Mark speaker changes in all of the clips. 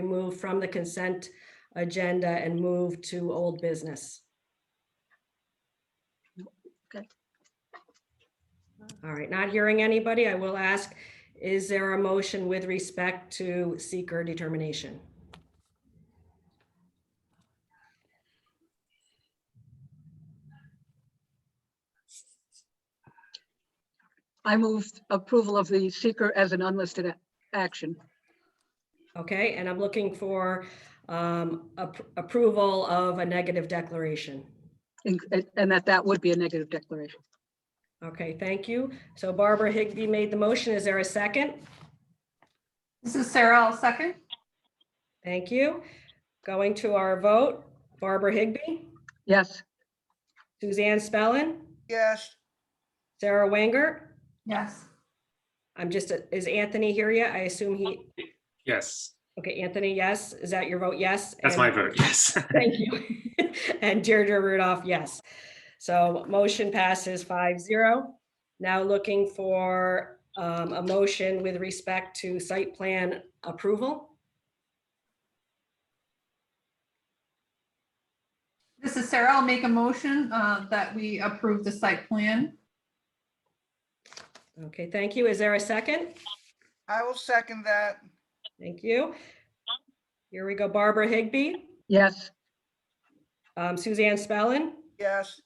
Speaker 1: removed from the consent agenda and moved to old business.
Speaker 2: Good.
Speaker 1: All right, not hearing anybody, I will ask, is there a motion with respect to seeker determination?
Speaker 2: I move approval of the seeker as an unlisted a- action.
Speaker 1: Okay, and I'm looking for um, ap- approval of a negative declaration.
Speaker 2: in- And that that would be a negative declaration.
Speaker 1: Okay, thank you. So Barbara Higbee made the motion. Is there a second?
Speaker 3: This is Sarah, I'll second.
Speaker 1: Thank you. Going to our vote, Barbara Higbee,
Speaker 2: Yes,
Speaker 1: Suzanne Spellin,
Speaker 4: Yes,
Speaker 1: Sarah Wanger.
Speaker 3: Yes.
Speaker 1: I'm just, is Anthony here yet? I assume he,
Speaker 5: Yes,
Speaker 1: okay, Anthony, yes. Is that your vote? Yes?
Speaker 5: that's
Speaker 1: And-
Speaker 5: my vote, yes.
Speaker 1: Thank you. And Deirdre Rudolph, yes. So motion passes five zero. Now looking for um, a motion with respect to site plan approval.
Speaker 3: This is Sarah, I'll make a motion uh, that we approve the site plan.
Speaker 1: Okay, thank you. Is there a second?
Speaker 4: I will second that.
Speaker 1: Thank you. Here we go. Barbara Higbee,
Speaker 2: yes,
Speaker 1: um, Suzanne Spellin,
Speaker 4: Yes,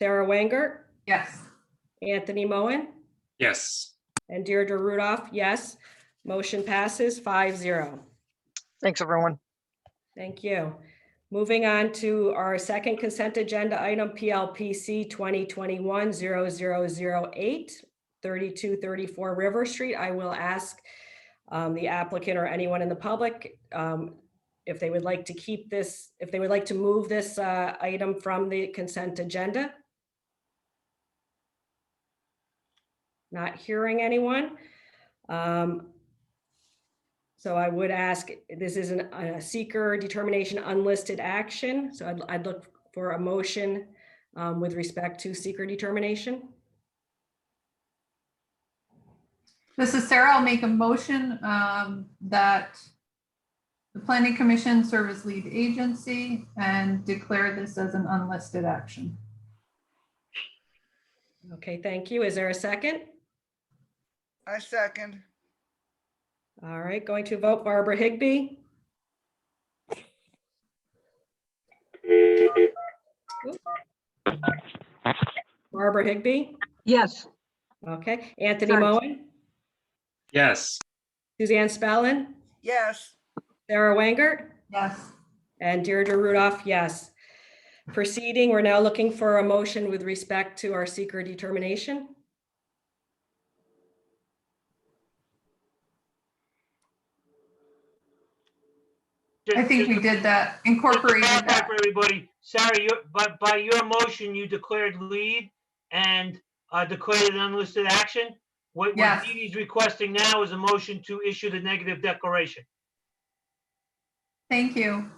Speaker 1: Sarah Wanger,
Speaker 3: Yes.
Speaker 1: Anthony Moen,
Speaker 5: Yes,
Speaker 1: and Deirdre Rudolph, yes. Motion passes five zero.
Speaker 6: Thanks, everyone.
Speaker 1: Thank you. Moving on to our second consent agenda item, PLPC 2021-0008, 3234 River Street. I will ask um, the applicant or anyone in the public um, if they would like to keep this, if they would like to move this uh, item from the consent agenda. Not hearing anyone. Um, so I would ask, this is an- a seeker determination unlisted action, so I'd, I'd look for a motion um, with respect to seeker determination.
Speaker 3: This is Sarah, I'll make a motion um, that the planning commission serve as lead agency and declare this as an unlisted action.
Speaker 1: Okay, thank you. Is there a second?
Speaker 4: I second.
Speaker 1: All right, going to vote Barbara Higbee. Barbara Higbee,
Speaker 2: yes.
Speaker 1: okay. Anthony
Speaker 2: Sorry.
Speaker 1: Moen,
Speaker 5: yes,
Speaker 1: Suzanne Spellin,
Speaker 4: Yes,
Speaker 1: Sarah Wanger.
Speaker 3: Yes.
Speaker 1: And Deirdre Rudolph, yes. Proceeding, we're now looking for a motion with respect to our seeker determination.
Speaker 3: I think we did that, incorporated
Speaker 7: Back up,
Speaker 3: that.
Speaker 7: everybody. Sorry, you, but by your motion, you declared lead and uh, declared an unlisted action. What what
Speaker 3: Yes.
Speaker 7: Dee Dee's requesting now is a motion to issue the negative declaration.
Speaker 3: Thank you.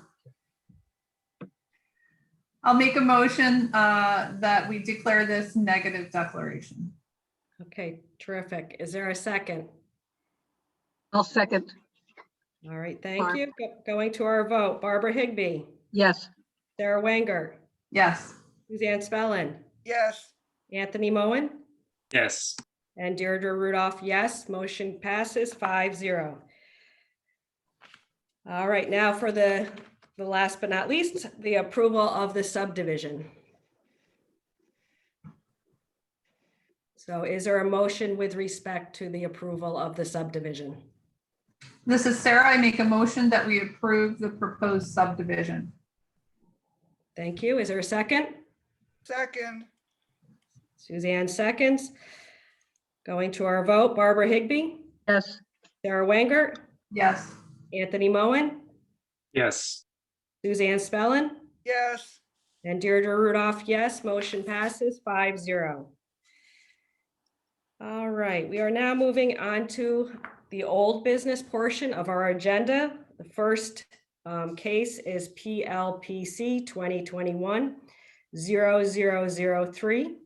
Speaker 3: I'll make a motion uh, that we declare this negative declaration.
Speaker 1: Okay, terrific. Is there a second?
Speaker 2: I'll second,
Speaker 1: All right, thank
Speaker 2: Barb.
Speaker 1: you. Go- Going to our vote, Barbara Higbee,
Speaker 2: yes.
Speaker 1: Sarah Wanger,
Speaker 3: Yes.
Speaker 1: Suzanne Spellin,
Speaker 4: yes,
Speaker 1: Anthony Moen,
Speaker 5: yes,
Speaker 1: and Deirdre Rudolph, yes. Motion passes five zero. All right, now for the, the last but not least, the approval of the subdivision. So is there a motion with respect to the approval of the subdivision?
Speaker 3: This is Sarah. I make a motion that we approve the proposed subdivision.
Speaker 1: Thank you. Is there a second?
Speaker 4: second.
Speaker 1: Suzanne seconds. Going to our vote, Barbara Higbee,
Speaker 2: Yes,
Speaker 1: Sarah Wanger,
Speaker 3: Yes.
Speaker 1: Anthony Moen,
Speaker 5: yes,
Speaker 1: Suzanne Spellin,
Speaker 4: Yes,
Speaker 1: And Deirdre Rudolph, yes. Motion passes five zero. All right, we are now moving on to the old business portion of our agenda. The first um, case is PLPC 2021 0003.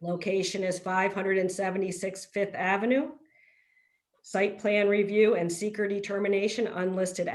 Speaker 1: Location is 576 Fifth Avenue. site plan review and seeker determination unlisted